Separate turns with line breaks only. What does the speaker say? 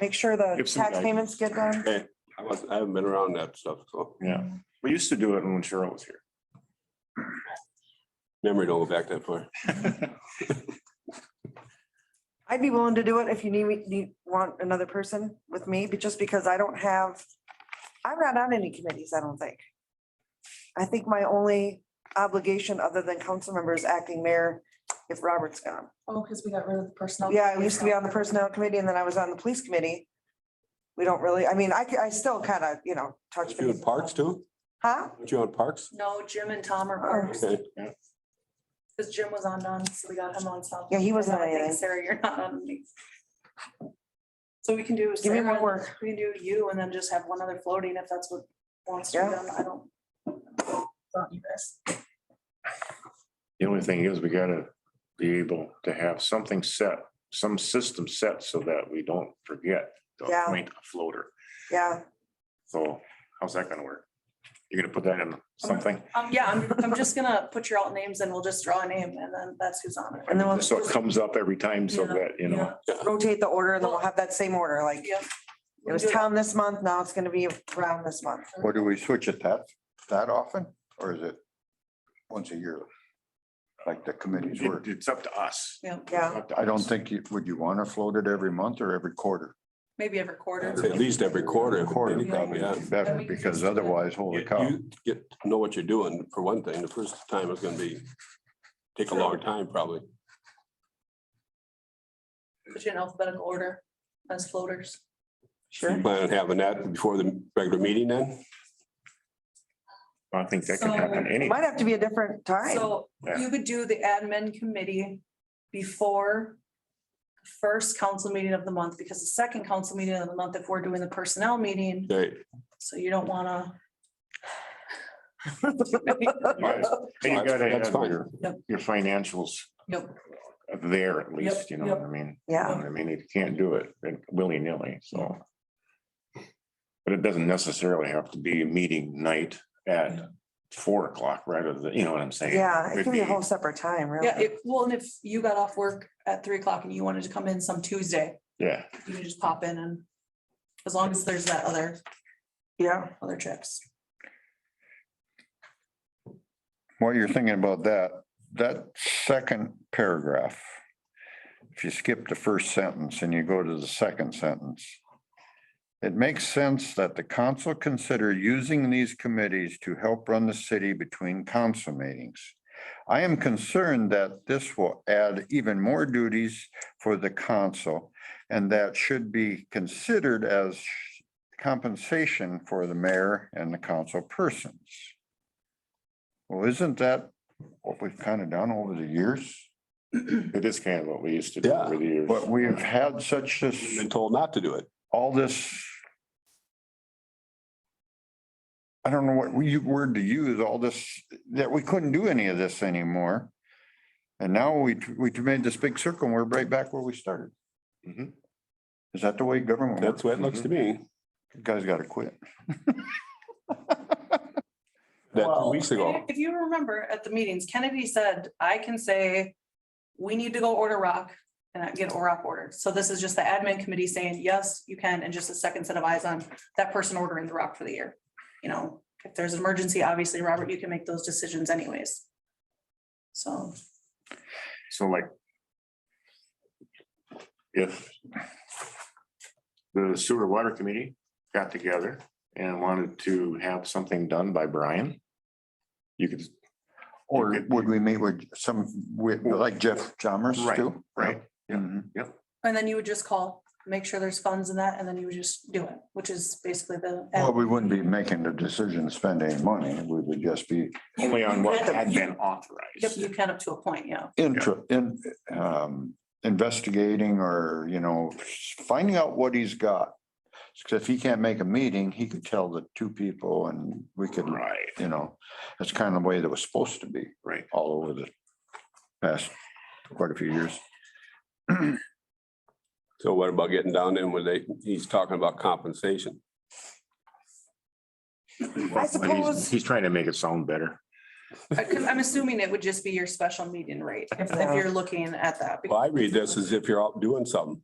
make sure the
Give some
tax payments get done.
Okay, I was, I haven't been around that stuff, so
Yeah, we used to do it when Cheryl was
memory don't go back that far.
here.
I'd be willing to do it if you need me, you want another person with me, but just because I don't have, I'm not on any committees, I don't think. I think my only obligation other than council members acting mayor, if Robert's gone.
Oh, because we got rid of the personnel.
Yeah, I used to be on the personnel committee and then I was on the police committee. We don't really, I mean, I, c- I still kind of, you know, touch.
Aren't You in
base.
parks too?
Huh?
Aren't You in parks?
No, Jim and Tom are partners,
Okay,
because Jim was on none, so we got him on something.
Yeah, he wasn't
And I
on
think,
anything.
Sarah, you're not on any. So we can do.
Give me more
Sarah,
work.
We can do you and then just have one other floating if that's what wants to be
Yeah.
done. I don't. it's on you guys.
The only thing is, we gotta be able to have something set, some system set so that we don't forget to
Yeah.
appoint a floater.
Yeah,
So how's that gonna work? You're gonna put that in something?
Um, yeah, I'm, I'm just gonna put your alt names and we'll just draw a name and then that's who's on it.
And then we'll-
So it comes up every time so
Yeah,
that, you know,
rotate the order and then we'll have that same order, like
Yeah.
it was Tom this month, now it's gonna be Brown this month.
Or do we switch it that, that often, or is it once a year? Like the committees
it-
work?
it's up to us.
Yeah,
Yeah,
Up to
I don't
us.
think, you would you want to float it every month or every quarter?
maybe every
I'd
quarter.
say At least every quarter.
Quarter probably
Yeah.
would be better, because otherwise, holy
You
cow.
you get to know what you're doing, for one thing. The first time is gonna be, take a long time probably.
Put you in alphabetical order as floaters.
So You
sure.
plan on having that before the regular meeting then?
I think that can happen
So-
any.
Might have to be a different time.
So
Yeah.
you could do the admin committee before the first council meeting of the month, because the second council meeting of the month, if we're doing the personnel meeting,
Right,
so you don't wanna.
Right. And you gotta
That's
have
fine.
your,
Yep.
your financials
Yep.
there at least, you know what I mean?
Yeah,
I mean, you can't do it willy nilly, so. But it doesn't necessarily have to be a meeting night at four o'clock, right? Or the, you know what I'm saying?
yeah, it
Could
can be a
be-
whole separate time, really.
Yeah, if, well, and if you got off work at three o'clock and you wanted to come in some Tuesday,
Yeah,
you can just pop in and as long as there's that other,
Yeah,
other trips.
While you're thinking about that, that second paragraph, if you skip the first sentence and you go to the second sentence, it makes sense that the council consider using these committees to help run the city between council meetings. I am concerned that this will add even more duties for the council and that should be considered as compensation for the mayor and the council persons. Well, isn't that what we've kind of done over the years?
it is kind of what we used to do
Yeah.
over the years.
But we've had such
You've
this,
Been told not to do it.
all this. I don't know what we- word to use, all this, that we couldn't do any of this anymore. And now we, we made this big circle and we're right back where we started.
Mhm.
Is that the way government
That's
works?
what it looks to me.
You Guys gotta quit.
That two
Well-
weeks ago.
If you remember at the meetings, Kennedy said, I can say, we need to go order rock and I get rock ordered. So this is just the admin committee saying, yes, you can, and just a second set of eyes on that person ordering the rock for the year. You know, if there's an emergency, obviously, Robert, you can make those decisions anyways. So,
So like. If. The sewer water committee got together and wanted to have something done by Brian. You could,
Or would we meet with some, with, like Jeff Chalmers
Right,
too?
right, yeah.
Mhm.
and then you would just call, make sure there's funds in that, and then you would just do it, which is basically the.
Well, we wouldn't be making the decision to spend any money. We would just be
only on what had been
Yep,
authorized.
you can up to a point, yeah.
intra, in, um, investigating or, you know, finding out what he's got. 'Cause if he can't make a meeting, he could tell the two people and we could,
Right.
you know, that's kind of the way that was supposed to be.
Right.
All over the past quite a few years.
So what about getting down in when they, he's talking about compensation?
I
But he's-
suppose,
He's trying to make it sound better.
Uh, 'cause I'm assuming it would just be your special meeting rate, if, if you're looking at that.
Well, I read this as if you're out doing something.